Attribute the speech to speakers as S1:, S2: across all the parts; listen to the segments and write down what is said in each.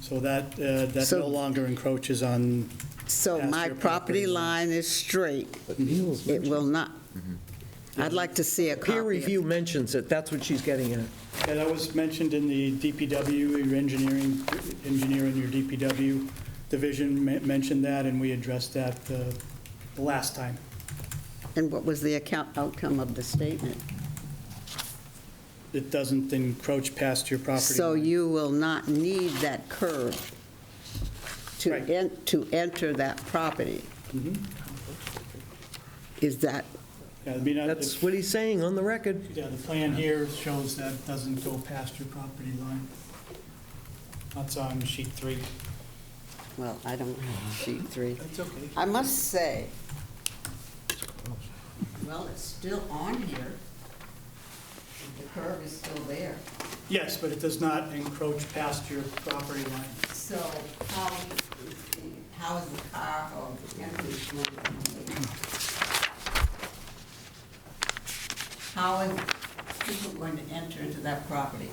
S1: So that, uh, that
S2: So-
S1: no longer encroaches on,
S2: So
S1: Past
S2: my
S1: your
S2: property
S1: property line.
S2: line is straight.
S3: But Neil's
S2: It
S3: mentioned-
S2: will not.
S1: Mm-hmm.
S2: I'd like to see a copy.
S3: Peer
S2: of-
S3: review mentions it, that's what she's getting at.
S1: yeah, that was mentioned in the DPW, your engineering, engineer in your DPW division men- mentioned that, and we addressed that uh, the last time.
S2: And what was the account, outcome of the statement?
S1: It doesn't encroach past your property.
S2: So
S1: line.
S2: you will not need that curve to
S1: Right.
S2: en, to enter that property. Is that,
S1: Mm-hmm. Yeah, I mean, I-
S3: That's what he's saying on the record.
S1: Yeah, the plan here shows that doesn't go past your property line. That's on sheet three.
S2: well, I don't have sheet three.
S1: That's okay.
S2: I must say, well, it's still on here. The curve is still there.
S1: Yes, but it does not encroach past your property line.
S2: So how, how is the car or the entrance going to be? How is people going to enter into that property?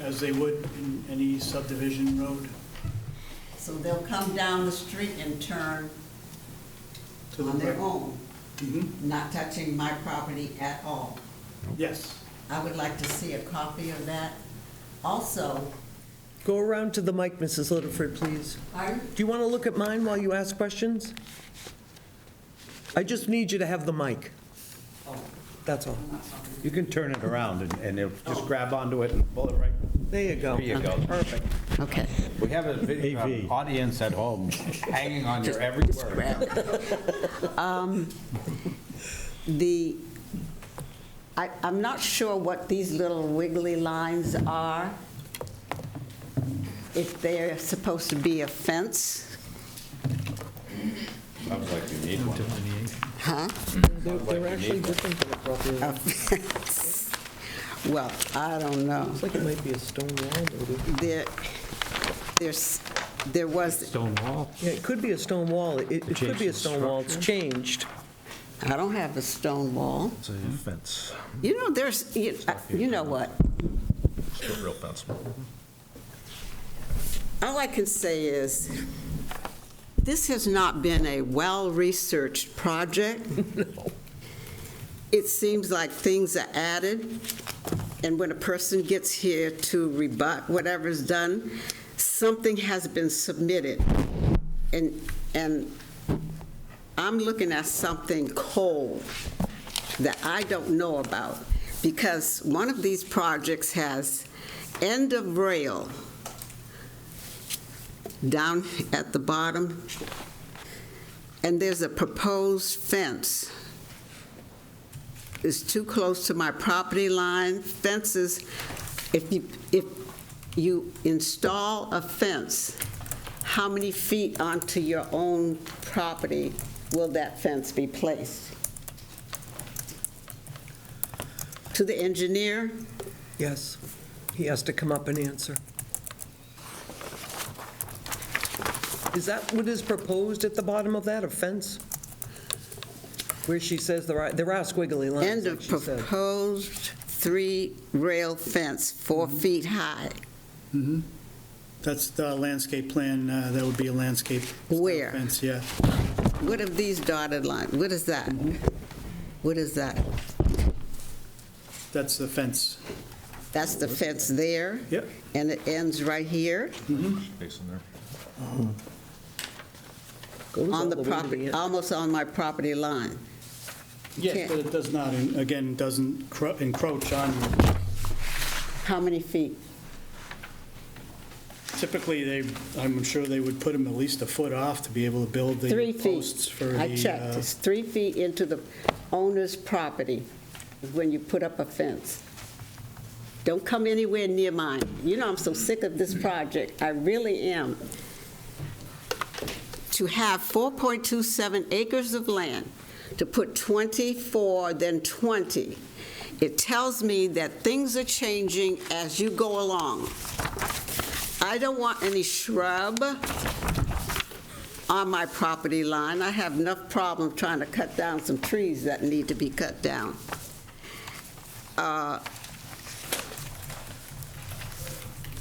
S1: As they would in any subdivision road
S2: So they'll come down the street and turn
S1: to the
S2: on their
S1: right.
S2: own,
S1: Mhm.
S2: not touching my property at all.
S1: Yes,
S2: I would like to see a copy of that. Also,
S3: Go around to the mic, Mrs. Litterford, please.
S2: pardon?
S3: Do you want to look at mine while you ask questions? I just need you to have the mic,
S2: Oh,
S3: that's all.
S2: I'm not talking.
S4: You can turn it around and- and it'll just grab onto it and pull it right.
S3: There you go.
S4: There you go.
S3: Perfect.
S2: Okay.
S4: We have a video-
S5: AV.
S4: audience at home hanging on your every word.
S2: The, I, I'm not sure what these little wiggly lines are. If they're supposed to be a fence,
S4: Sounds like you need one.
S2: huh?
S3: They're- They're actually different than a property line.
S2: A fence. Well, I don't know.
S3: Looks like it might be a stone wall, maybe.
S2: There, there's, there was,
S5: Stone wall?
S3: Yeah, it could be a stone wall, it it could be a stone wall, it's changed.
S2: I don't have a stone wall.
S5: It's a fence,
S2: You know, there's, you you know what?
S5: real fence.
S2: All I can say is, this has not been a well-researched project. It seems like things are added, and when a person gets here to rebut whatever's done, something has been submitted. And, and I'm looking at something cold that I don't know about, because one of these projects has end of rail down at the bottom, and there's a proposed fence. It's too close to my property line. Fences, if you, if you install a fence, how many feet onto your own property will that fence be placed? To the engineer,
S3: Yes, he has to come up and answer. Is that what is proposed at the bottom of that, a fence? Where she says there are, there are squiggly lines,
S2: end
S3: like
S2: of
S3: she said.
S2: proposed three rail fence, four feet high.
S1: Mm-hmm. that's the landscape plan, uh, that would be a landscape. style
S2: Where?
S1: Fence, yeah.
S2: What of these dotted lines? What is that?
S3: Mm-hmm.
S2: What is that?
S1: That's the fence.
S2: That's the fence there?
S1: Yep.
S2: And it ends right here
S3: Goes all
S2: on the
S3: way to
S2: property, uh,
S3: end.
S2: almost on my property line.
S1: Yes,
S2: can't-
S1: but it does not, and again, doesn't cro- encroach on,
S2: How many feet?
S1: typically, they, I'm sure they would put them at least a foot off to be able to build
S2: Three
S1: the posts
S2: feet.
S1: for the.
S2: I checked.
S1: uh,
S2: It's three feet into the owner's property is when you put up a fence. Don't come anywhere near mine. You know, I'm so sick of this project. I really am. To have 4.27 acres of land, to put 24, then 20, it tells me that things are changing as you go along. I don't want any shrub on my property line. I have enough problem trying to cut down some trees that need to be cut down. Uh,